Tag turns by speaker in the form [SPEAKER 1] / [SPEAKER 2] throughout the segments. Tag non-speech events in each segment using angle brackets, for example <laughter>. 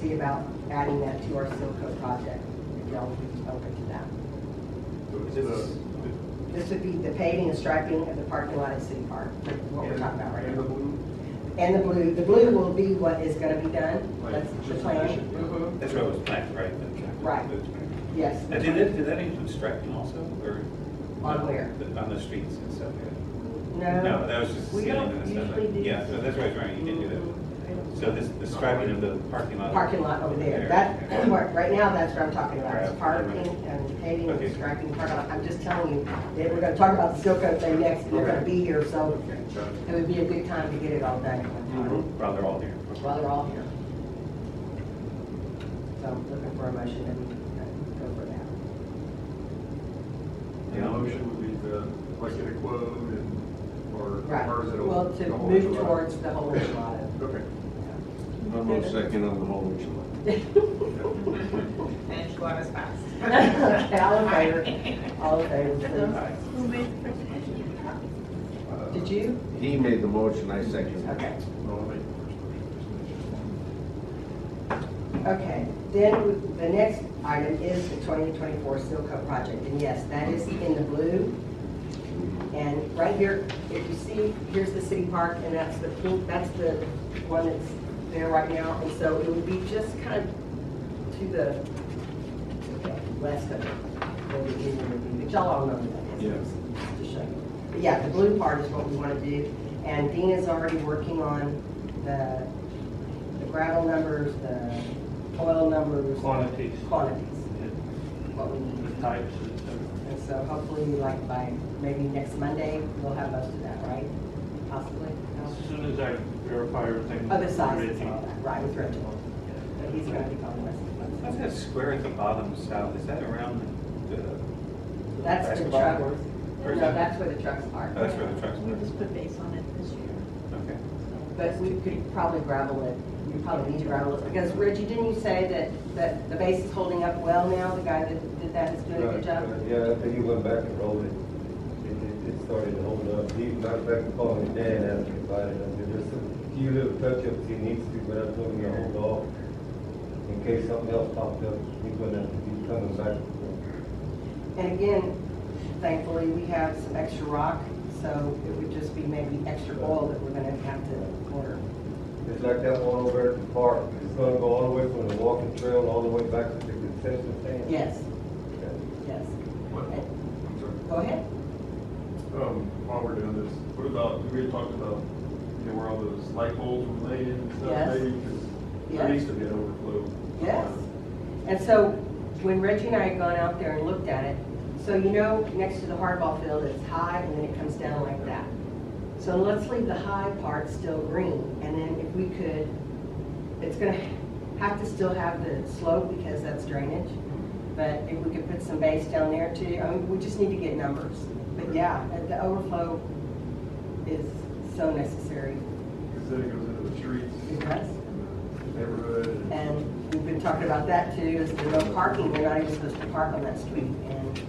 [SPEAKER 1] see about adding that to our Silco project, if y'all would be open to that. This would be the paving and striping of the parking lot at City Park, what we're talking about right
[SPEAKER 2] And the
[SPEAKER 1] now.
[SPEAKER 2] blue?
[SPEAKER 1] And the blue, the blue will be what is gonna be done,
[SPEAKER 2] Like,
[SPEAKER 1] that's the
[SPEAKER 2] just
[SPEAKER 1] plan.
[SPEAKER 2] addition, yeah.
[SPEAKER 1] Mhm.
[SPEAKER 3] That's where it was planned, right? the-
[SPEAKER 1] Right. Yes.
[SPEAKER 3] And did that, did that include striping also, or?
[SPEAKER 1] On where?
[SPEAKER 3] On the streets and stuff, yeah. No,
[SPEAKER 1] No,
[SPEAKER 3] that was just
[SPEAKER 4] We
[SPEAKER 3] ceiling
[SPEAKER 4] don't
[SPEAKER 3] and stuff.
[SPEAKER 4] usually do-
[SPEAKER 3] Yeah, so that's why I was wondering, you didn't do that. So this, the striping of the parking lot.
[SPEAKER 1] Mm, parking lot over there, that, that part- right now, that's what I'm talking about, is parking and paving and striping the parking lot. I'm just telling you, that we're gonna talk about the Silco thing next, we're gonna be here, so it would be a good time to get it all done at one time.
[SPEAKER 3] Well, they're all there.
[SPEAKER 1] while they're all here. So I'm looking for a motion that we uh, go for that.
[SPEAKER 2] The motion would be the, like, get a quote and, or, or is it? a-
[SPEAKER 1] Well, to
[SPEAKER 2] the whole
[SPEAKER 1] move
[SPEAKER 2] enchilada?
[SPEAKER 1] towards the whole enchilada.
[SPEAKER 2] Okay.
[SPEAKER 5] I'm on second on the whole enchilada.
[SPEAKER 4] And she was fast. <laughs>
[SPEAKER 1] Okay, <laughs> all in favor? All in favor,
[SPEAKER 3] Aye.
[SPEAKER 4] Who made the first motion?
[SPEAKER 1] please. Did you?
[SPEAKER 5] He made the motion, I seconded. it.
[SPEAKER 1] Okay.
[SPEAKER 2] Uh, Well, I'll make the first motion.
[SPEAKER 1] Okay, then we- the next item is the 2024 Silco project, and yes, that is in the blue. And right here, if you see, here's the city park, and that's the pink, that's the one that's there right now, and so it would be just kind of to the west of it, where the union would be, which y'all all know where that is. Just To show you. But yeah, the blue part is what we want to do, and Dina's already working on the the gravel numbers, the oil numbers.
[SPEAKER 6] Quantities.
[SPEAKER 1] Quantities, what we need.
[SPEAKER 6] The types and stuff.
[SPEAKER 1] And so hopefully, like by maybe next Monday, we'll have most of that, right? Possibly? Oh, no?
[SPEAKER 6] As soon as I verify everything.
[SPEAKER 1] Other sizes,
[SPEAKER 6] everything.
[SPEAKER 1] all that, right, with Reginald. But he's gonna be calling us.
[SPEAKER 3] What's that square at the bottom south? Is that around the?
[SPEAKER 1] That's the
[SPEAKER 3] basketball
[SPEAKER 1] truck.
[SPEAKER 3] court? Or
[SPEAKER 1] No,
[SPEAKER 3] is that-
[SPEAKER 1] that's where the trucks are.
[SPEAKER 3] Oh, That's where the trucks
[SPEAKER 4] We
[SPEAKER 3] were.
[SPEAKER 4] just put base on it this year.
[SPEAKER 3] Okay.
[SPEAKER 1] But we could probably gravel it, we probably need to gravel it, because Reggie, didn't you say that, that the base is holding up well now? The guy that did that is doing a good job?
[SPEAKER 7] Yeah, after he went back and rolled it, it, it- it started to hold up. He went back and called me Dan, asked me about it, I said, there's a few little touch-ups he needs to, but I told him to hold off. In case something else popped up, he's gonna have to be coming back.
[SPEAKER 1] And again, thankfully, we have some extra rock, so it would just be maybe extra oil that we're gonna have to order.
[SPEAKER 7] It's like that one over at the park, it's gonna go all the way from the walking trail, all the way back to the concession stand.
[SPEAKER 1] Yes,
[SPEAKER 7] Yeah.
[SPEAKER 1] yes.
[SPEAKER 2] What-
[SPEAKER 1] And-
[SPEAKER 2] I'm sorry.
[SPEAKER 1] Go ahead.
[SPEAKER 2] Um, while we're doing this, what about, we had talked about, you know, where all those light poles were laid and stuff,
[SPEAKER 1] Yes.
[SPEAKER 2] maybe, because
[SPEAKER 1] Yes.
[SPEAKER 2] there needs to be an overflow. Uh,
[SPEAKER 1] Yes. And so when Reggie and I had gone out there and looked at it, so you know, next to the hardball field, it's high and then it comes down like that. So let's leave the high part still green and then if we could, it's gonna have to still have the slope because that's drainage. But if we could put some base down there too, I mean, we just need to get numbers. But yeah, the- the overflow is so necessary.
[SPEAKER 2] Because then it goes into the streets,
[SPEAKER 1] It does.
[SPEAKER 2] and uh, the neighborhood. and-
[SPEAKER 1] And we've been talking about that too, is the no parking, they're not even supposed to park on that street. And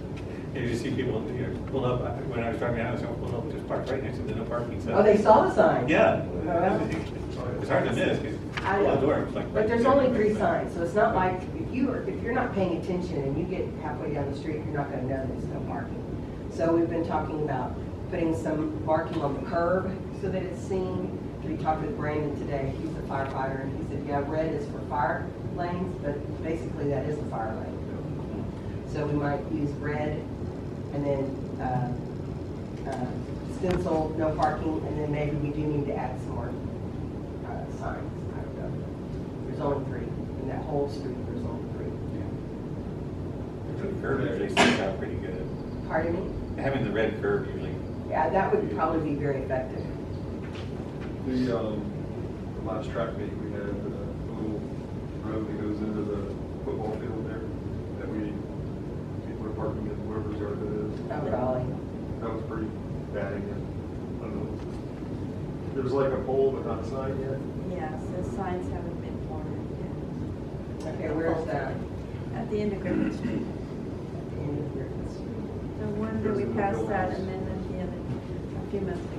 [SPEAKER 3] Yeah, you see people, you know, pull up, I- when I was driving out, I was going, pull up, just parked right next to the no parking sign.
[SPEAKER 1] Oh, they saw the sign?
[SPEAKER 3] Yeah.
[SPEAKER 1] Well,
[SPEAKER 3] It's hard to miss, because
[SPEAKER 1] I
[SPEAKER 3] pull out the door,
[SPEAKER 1] know.
[SPEAKER 3] it's like.
[SPEAKER 1] But there's only three signs, so it's not like, if you are, if you're not paying attention and you get halfway down the street, you're not gonna know there's no parking. So we've been talking about putting some marking on the curb so that it's seen. We talked with Brandon today, he's a firefighter, and he said, yeah, red is for fire lanes, but basically that is a fire lane. So we might use red and then uh, uh, stencil, no parking, and then maybe we do need to add some more uh, signs. I don't know. There's only three. In that whole street, there's only three.
[SPEAKER 3] The curb usually sticks out pretty good.
[SPEAKER 1] Pardon me?
[SPEAKER 3] Having the red curb usually,
[SPEAKER 1] Yeah, that would probably be very effective.
[SPEAKER 2] The, um, the last track meet, we had uh, a little road that goes into the football field there that we, people are parking in whoever's yard it is.
[SPEAKER 1] Oh, golly.
[SPEAKER 2] That was pretty bad again. I don't know. There's like a pole but not a sign yet.
[SPEAKER 4] Yeah, so signs haven't been ordered
[SPEAKER 1] Okay, where's that?
[SPEAKER 4] yet. At the end of Griffin Street.
[SPEAKER 3] <clears throat>
[SPEAKER 1] End of Griffin Street.
[SPEAKER 4] No wonder we passed that amendment the other, a few months ago.